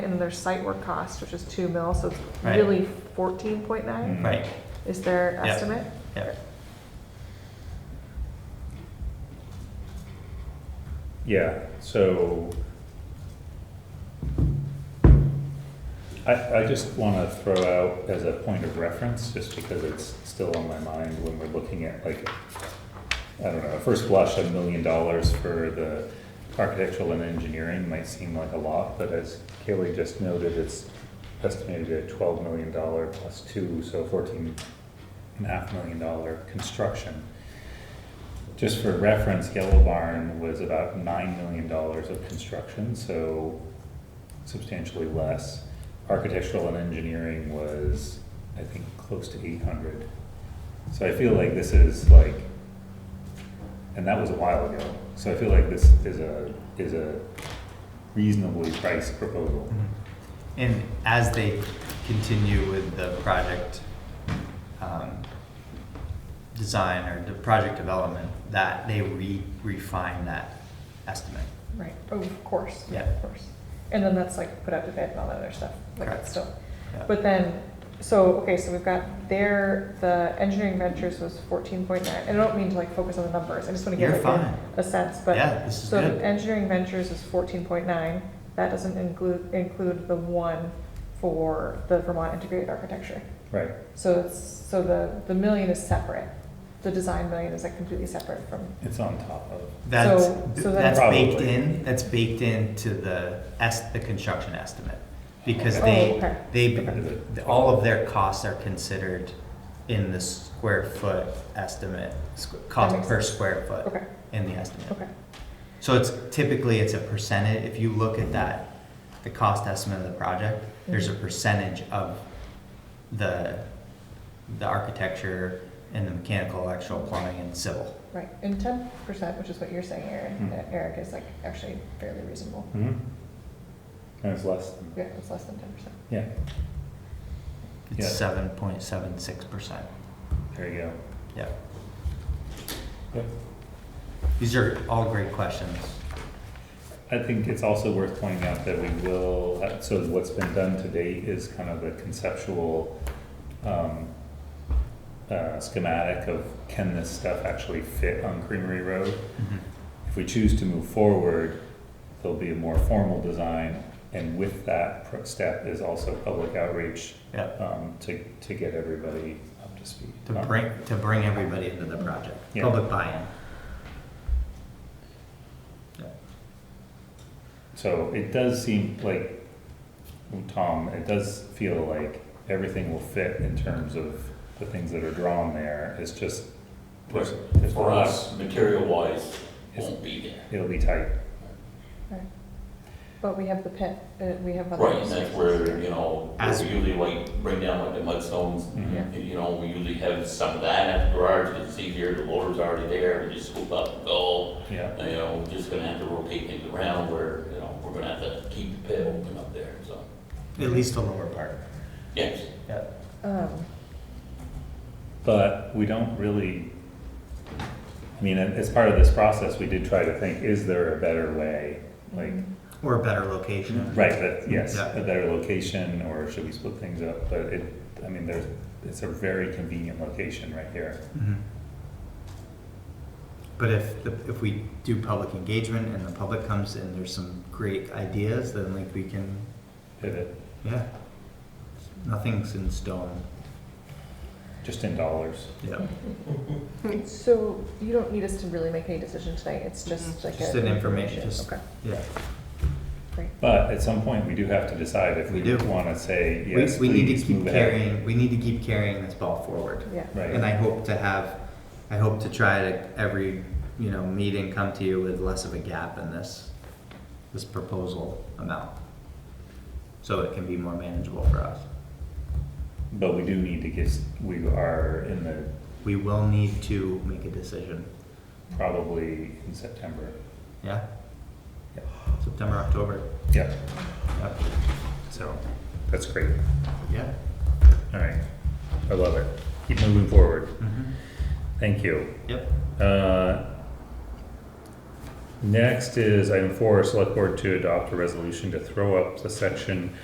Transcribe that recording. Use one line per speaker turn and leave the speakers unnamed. their site work cost, which is two mil, so it's
Right. Mm-hmm.
really fourteen point nine
Right,
is their
Yeah.
estimate.
yeah.
Yeah, so I, I just want to throw out as a point of reference, just because it's still on my mind when we're looking at like, I don't know, at first blush, a million dollars for the architectural and engineering might seem like a lot, but as Kaylee just noted, it's estimated at twelve million dollar plus two, so fourteen and a half million dollar construction. Just for reference, Yellow Barn was about nine million dollars of construction, so substantially less. Architectural and engineering was, I think, close to eight hundred. So I feel like this is like, and that was a while ago, so I feel like this is a, is a reasonably priced proposal.
And as they continue with the project um, design or the project development, that they re- refine that estimate.
Right, oh, of course.
Yeah.
Of course. And then that's like put out to bid and all that other stuff, like
Correct.
that's still.
Yeah.
But then, so, okay, so we've got there, the engineering ventures was fourteen point nine, and I don't mean to like focus on the numbers, I just wanna
You're
give like
fine.
a, a sense, but.
Yeah, this is
So
good.
the engineering ventures is fourteen point nine, that doesn't include, include the one for the Vermont integrated architecture.
Right,
So it's, so the, the million is separate, the design million is like completely separate from,
it's on top of,
That's,
So- so
that's
then-
baked
Probably.
in, that's baked into the es, the construction estimate. Because
Oh, okay.
they,
Okay.
they, all of their costs are considered in the square foot estimate, squ- cost
makes
per square foot
okay,
in the estimate.
okay,
So it's typically, it's a percentage, if you look at that, the cost estimate of the project, there's a
Mhm.
percentage of the, the architecture and the mechanical, electrical, plumbing and civil.
right. And ten percent, which is what you're saying, Aaron,
Hmm.
that Eric is like actually fairly reasonable.
Mm-hmm.
Mhm. and it's less than,
Yeah, it's less than ten percent.
yeah,
It's
Yeah.
seven point seven six percent.
there you go.
Yeah.
Yep.
These are all great questions.
I think it's also worth pointing out that we will, uh, so what's been done to date is kind of a conceptual um, uh, schematic of can this stuff actually fit on Creamery Road?
mm-hmm,
If we choose to move forward, there'll be a more formal design, and with that pro- step is also public outreach
Yeah,
um, to, to get everybody up to speed. Um,
to bring, to bring everybody into the project,
Yeah.
public buy-in. Yeah.
So it does seem like, Tom, it does feel like everything will fit in terms of the things that are drawn there. It's just, there's, there's
For
not-
us, material-wise,
Yes.
won't be there.
It'll be tight.
Right. But we have the pit, uh, we have other.
Right, and that's
resources.
where, you know, where
As-
we usually like bring down like the mudstones,
Mhm.
you know, we usually have some of that at the garage, you can see here, the loader's already there, we just scoop up and go.
Yeah,
You know, we're just gonna have to rotate things around where, you know, we're gonna have to keep the pit open up there, so,
At least the lower part.
yes.
Yeah.
Um,
but we don't really, I mean, as part of this process, we did try to think, is there a better way? Like,
Um,
Or a better location.
right, that, yes,
Yeah.
a better location, or should we split things up? But it, I mean, there's, it's a very convenient location right here.
Mhm. But if, the- if we do public engagement and the public comes in, there's some great ideas, then like we can,
Pivot,
yeah. Nothing's in stone.
just in dollars.
Yeah.
So you don't need us to really make any decision tonight, it's just like a.
Just an information, just,
Okay,
yeah.
great.
But at some point, we do have to decide if we
We do.
want to say,
We,
yes,
we need to
please
keep
move ahead.
carrying, we need to keep carrying this ball forward.
Yeah,
And
Right,
I hope to have, I hope to try to every, you know, meeting come to you with less of a gap in this, this proposal amount. So it can be more manageable for us.
but we do need to get, we are in the,
We will need to make a decision,
probably in September.
yeah? September, October,
Yeah,
yeah,
so, that's great.
yeah.
All right, I love it. Keep moving forward.
Mhm.
Thank you.
Yep,
Uh, Next is item four, select board to adopt a resolution to throw up the section